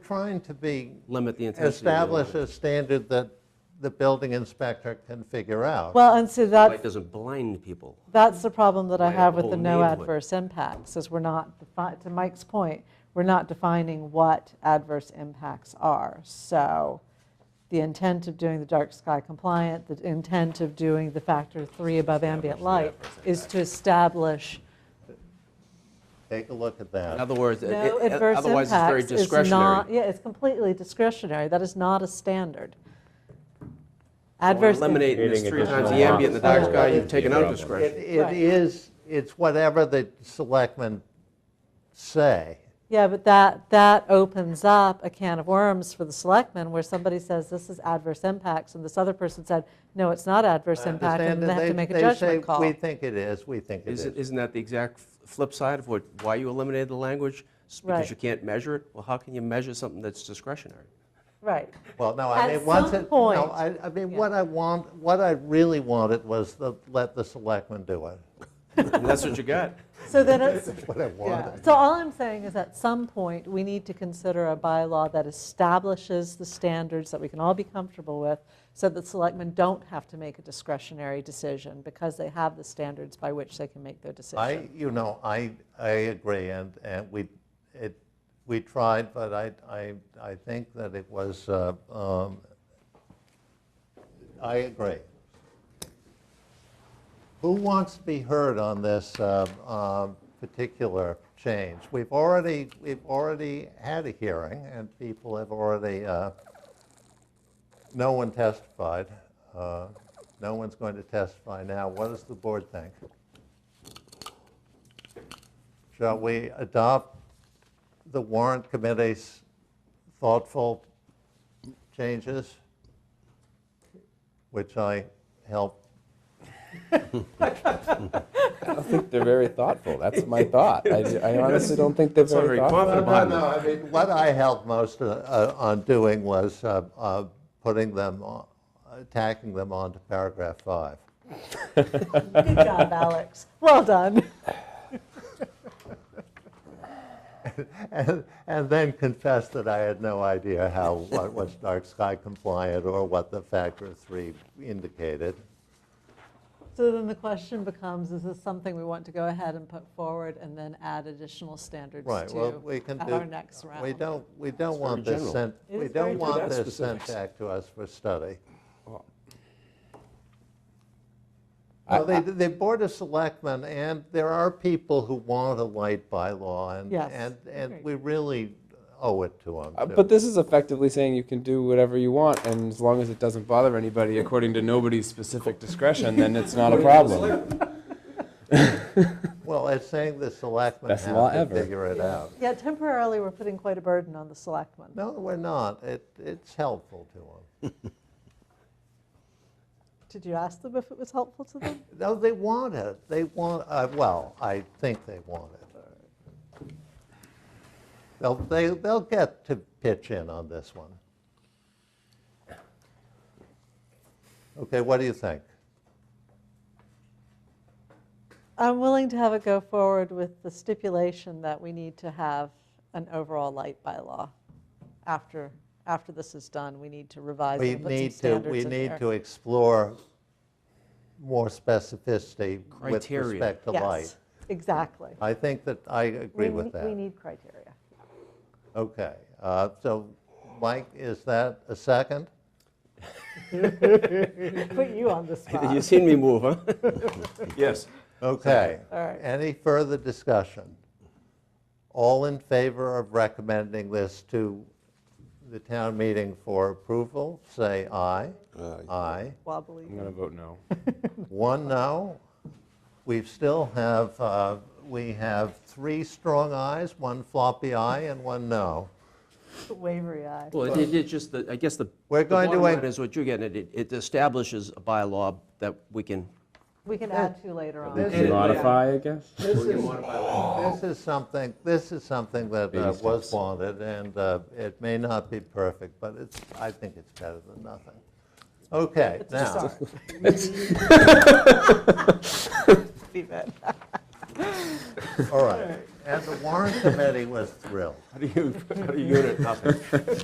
trying to be, limit the intensity. of the establish light. a standard that the building inspector can figure out. Well, and so Light that, doesn't blind people. that's the problem that I Like a have with the whole no neighborhood. adverse impacts, is we're not, defi- to Mike's point, we're not defining what adverse impacts are. So the intent of doing the dark sky compliant, the intent of doing the factor three above ambient light is to establish Take a look at that. In other words, it- no Uh, it- adverse otherwise it's very impacts is not, discretionary. yeah, it's completely discretionary. That is not a standard. So we're Adverse. im- Eliminating this Creating three times additional the ambient, in the dark lots. sky, Yeah. you've taken out Problem. It discretion. it Right. is, it's whatever the selectmen say. Yeah, but that, that opens up a can of worms for the selectmen where somebody says, this is adverse impacts, and this other person said, no, it's not adverse impact, and Understand then they that have to make a judgment call. They say, we think it is, we think it Isn't is. isn't that the exact f- flip side of what, why you eliminated the language? It's Right. Because you can't measure it? Well, how can you measure something that's discretionary? Right. Well, no, I At mean, once some it, point- no, I, I mean, Yeah. what I want, what I really wanted was to let the selectmen do it. And that's what you got. So then it's, What I yeah. wanted. So all I'm saying is at some point, we need to consider a bylaw that establishes the standards that we can all be comfortable with so that selectmen don't have to make a discretionary decision because they have the standards by which they can make their I, decision. you know, I, I agree, and, and we, it, we tried, but I, I, I think that it was, uh, um, I agree. Who wants to be heard on this uh, um, particular change? We've already, we've already had a hearing, and people have already, uh, no one testified. Uh, No one's going to testify now. What does the board think? Shall we adopt the warrant committee's thoughtful changes, which I helped? I think they're very thoughtful. That's my thought. I, I honestly don't think they're not very, very thoughtful. confident. No, no, I mean, what I helped most uh, uh, on doing was uh, uh, putting them, on- tacking them onto paragraph five. Good job, Alex. Well done. And and then confess that I had no idea how, what was dark sky compliant or what the factor of three indicated. So then the question becomes, is this something we want to go ahead and put forward and then add additional standards Right, well, we to can do. at our next round? We don't, we don't want very this general. sent, It we is very don't want general. this sent back to us for study. Well, the, the Board of Selectmen, and there are people who want a light bylaw, and, Yes, and, and agreed. we really owe it to them. Uh, But this is effectively saying you can do whatever you want, and as long as it doesn't bother anybody, according to nobody's specific discretion, then it's not a problem. Well, it's saying the selectmen Best law have to ever. figure it out. Yeah, temporarily, we're putting quite a burden on the selectmen. No, we're not. It, it's helpful to them. Did you ask them if it was helpful to them? No, they want it. They want, uh, well, I think they want it. They'll, they, they'll get to pitch in on this one. Okay, what do you think? I'm willing to have it go forward with the stipulation that we need to have an overall light bylaw. After, after this is done, we need to revise We and put some need to, we standards in need there. to explore more specificity with Criteria. respect to Yes, light. Exactly. I think that I agree We with ne- We that. need criteria. Okay, uh, so Mike, is that a second? Put you on the spot. You've seen me move, huh? Yes. Okay. All right. Any further discussion? All in favor of recommending this to the town meeting for approval, say aye. Aye. Wobbly. I'm gonna vote no. One no. We still have, uh, we have three strong ayes, one floppy aye, and one no. Wavery eye. Well, it- it, it's just, the- I guess the. We're the going to bottom wait- line Is what you're getting at. It- It establishes a bylaw that we can. We can add to later on. This is- Modify, I guess? This is something, this is something that uh, Baby was steps. wanted, and uh, it may not be perfect, but it's, I think it's better than nothing. Okay, now, Be bad. all right. and the warrant committee was thrilled. How do you, how do you unit nothing?